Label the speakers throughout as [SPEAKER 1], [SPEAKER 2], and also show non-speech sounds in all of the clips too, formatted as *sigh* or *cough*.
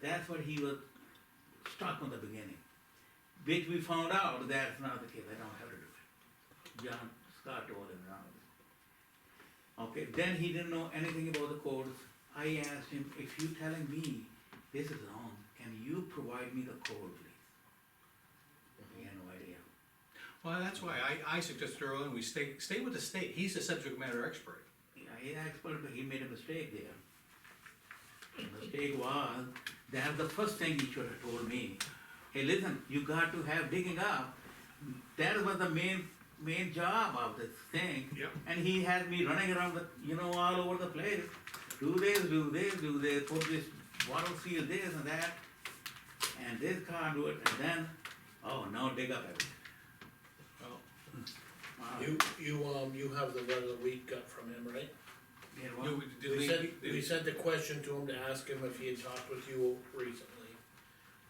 [SPEAKER 1] That's what he was stuck on the beginning. Which we found out that's not the case, I don't have to do it. John Scott told him not. Okay, then he didn't know anything about the codes. I asked him, if you telling me this is wrong, can you provide me the code, please? He had no idea.
[SPEAKER 2] Well, that's why I, I suggested earlier, on, we stay, stay with the state, he's the subject matter expert.
[SPEAKER 1] Yeah, he expert, but he made a mistake there. The mistake was, that's the first thing he should have told me. Hey, listen, you got to have digging up. That was the main, main job of this thing.
[SPEAKER 2] Yep.
[SPEAKER 1] And he had me running around the, you know, all over the place. Do this, do this, do this, put this water seal this and that, and this conduit, and then, oh, now dig up everything.
[SPEAKER 2] Well,
[SPEAKER 1] Wow.
[SPEAKER 3] You, you, um, you have the letter that we got from him, right?
[SPEAKER 1] Yeah,
[SPEAKER 2] do
[SPEAKER 1] well,
[SPEAKER 2] we- do
[SPEAKER 3] We
[SPEAKER 2] they-
[SPEAKER 3] sent,
[SPEAKER 2] do-
[SPEAKER 3] we sent the question to him to ask him if he had talked with you recently.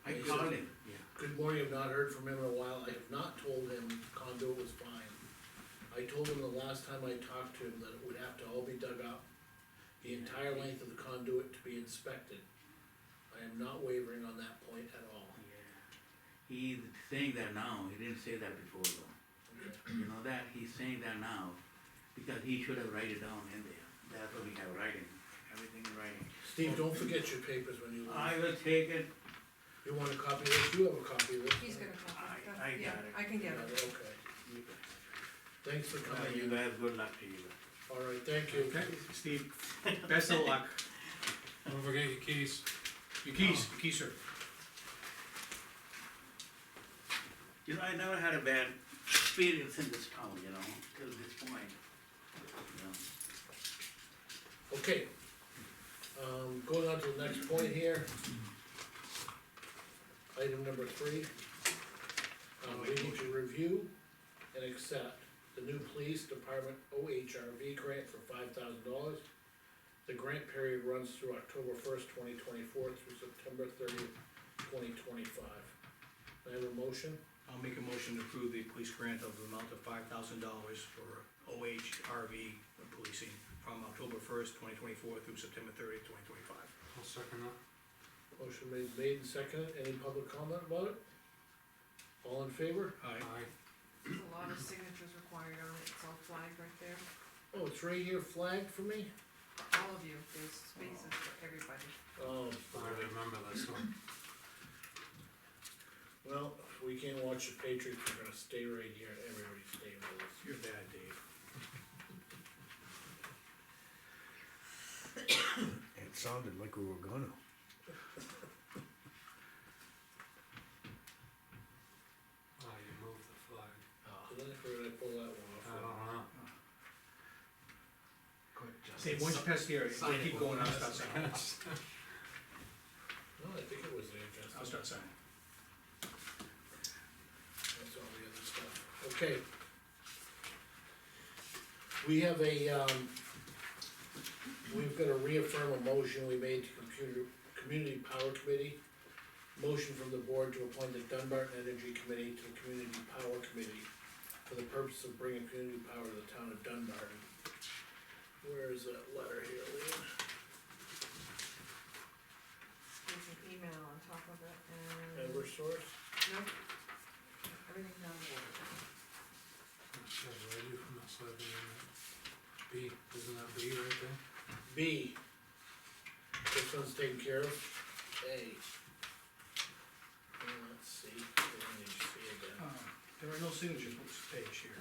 [SPEAKER 1] I called him, yeah.
[SPEAKER 3] Good morning, I've not heard from him in a while, I have not told him condo was fine. I told him the last time I talked to him that it would have to all be dug up, the entire length of the conduit to be inspected. I am not wavering on that point at all.
[SPEAKER 1] He's saying that now, he didn't say that before though. You know that, he's saying that now, because he should have write it down in there. That's what we have writing, everything in writing.
[SPEAKER 3] Steve, don't forget your papers when you
[SPEAKER 1] I
[SPEAKER 3] leave.
[SPEAKER 1] will take it,
[SPEAKER 3] You want a copy of this, you have a copy of this?
[SPEAKER 4] He's gonna call.
[SPEAKER 1] I-
[SPEAKER 4] Yeah,
[SPEAKER 1] I got it.
[SPEAKER 4] I can
[SPEAKER 3] Yeah,
[SPEAKER 4] get it.
[SPEAKER 3] okay,
[SPEAKER 1] you
[SPEAKER 3] thanks for
[SPEAKER 1] guys,
[SPEAKER 3] coming
[SPEAKER 1] you
[SPEAKER 3] in,
[SPEAKER 1] guys, good luck to you. guys.
[SPEAKER 3] alright, thank you.
[SPEAKER 2] Okay, Steve,
[SPEAKER 3] *laughs*
[SPEAKER 2] best of luck,
[SPEAKER 5] Don't forget your keys.
[SPEAKER 2] your keys, your keys, sir.
[SPEAKER 1] You know, I never had a bad experience in this town, you know, till this point. you know.
[SPEAKER 3] Okay. Um, going on to the next point here. Item number three. Um, we need to review and accept the new police department OHRV grant for five thousand dollars. The grant period runs through October first, twenty twenty-four through September thirtieth, twenty twenty-five. I have a motion,
[SPEAKER 2] I'll make a motion to approve the police grant of the amount of five thousand dollars for OHRV policing from October first, twenty twenty-four through September thirtieth, twenty twenty-five.
[SPEAKER 5] I'll second that.
[SPEAKER 3] motion made, made and seconded, any public comment about it? All in favor?
[SPEAKER 2] All right,
[SPEAKER 5] Aye.
[SPEAKER 4] There's a lot of signatures required on it, it's all flagged right there.
[SPEAKER 3] Oh, it's right here flagged for me?
[SPEAKER 4] All of you, there's spaces for everybody.
[SPEAKER 3] Oh,
[SPEAKER 5] I remember this one.
[SPEAKER 3] Well, if we can't watch the Patriots, we're gonna stay right here, everybody's staying with us.
[SPEAKER 2] you're bad, Dave.
[SPEAKER 6] It sounded like we were gonna.
[SPEAKER 5] Oh, you moved the flag.
[SPEAKER 3] So then if we're gonna pull that
[SPEAKER 5] I
[SPEAKER 3] one off.
[SPEAKER 5] don't know.
[SPEAKER 2] Dave, once you pass here, we'll keep going, I'll
[SPEAKER 5] *laughs*
[SPEAKER 2] start signing,
[SPEAKER 3] No, I think it was there,
[SPEAKER 2] I'll
[SPEAKER 3] Justin,
[SPEAKER 2] start signing.
[SPEAKER 3] that's all the other stuff, okay. We have a, um, we've gotta reaffirm a motion we made to computer, Community Power Committee. Motion from the board to appoint the Dunbarton Energy Committee to the Community Power Committee for the purpose of bringing community power to the town of Dunbarton. Where is that letter here, Lean?
[SPEAKER 4] There's an email on top of it and, nope,
[SPEAKER 3] Eversource?
[SPEAKER 4] everything's on board.
[SPEAKER 5] Should read you from the side of the internet. B, isn't that B right there?
[SPEAKER 3] B. This one's taken care of. A. And let's see, let me see
[SPEAKER 2] Uh,
[SPEAKER 3] again.
[SPEAKER 2] There are no signatures on this page here.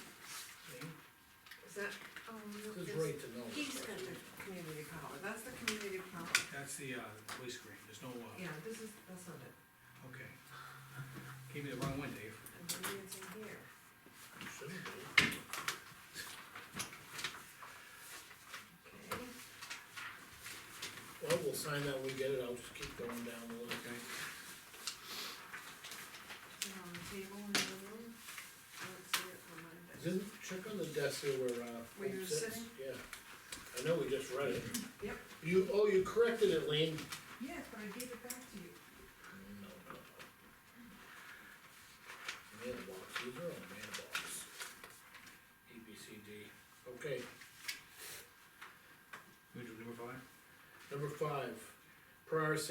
[SPEAKER 2] Dave?
[SPEAKER 4] Is that, um,
[SPEAKER 3] This is
[SPEAKER 4] there's,
[SPEAKER 3] right to know.
[SPEAKER 4] he's got the community power, that's the community power.
[SPEAKER 2] That's the, uh, police grant, there's no, uh,
[SPEAKER 4] Yeah, this is, that's not it.
[SPEAKER 2] okay. Gave me the wrong one, Dave.
[SPEAKER 4] And maybe it's in here.
[SPEAKER 3] Should be.
[SPEAKER 4] Okay,
[SPEAKER 3] Well, we'll sign that, when we get it, I'll just keep going down the list.
[SPEAKER 4] it's on the table in the room. I don't see it from my desk.
[SPEAKER 3] Didn't, check on the desk here where, uh.
[SPEAKER 4] Where you
[SPEAKER 3] it
[SPEAKER 4] were
[SPEAKER 3] sits.
[SPEAKER 4] sitting?
[SPEAKER 3] Yeah. I know we just read it.
[SPEAKER 4] Yep.
[SPEAKER 3] You, oh, you corrected it, Lean.
[SPEAKER 4] Yes, but I gave it back to you.
[SPEAKER 3] No, no, no. Mailbox, these are all mailbox. E, B, C, D, okay,
[SPEAKER 2] Move to number five?
[SPEAKER 3] number five, prior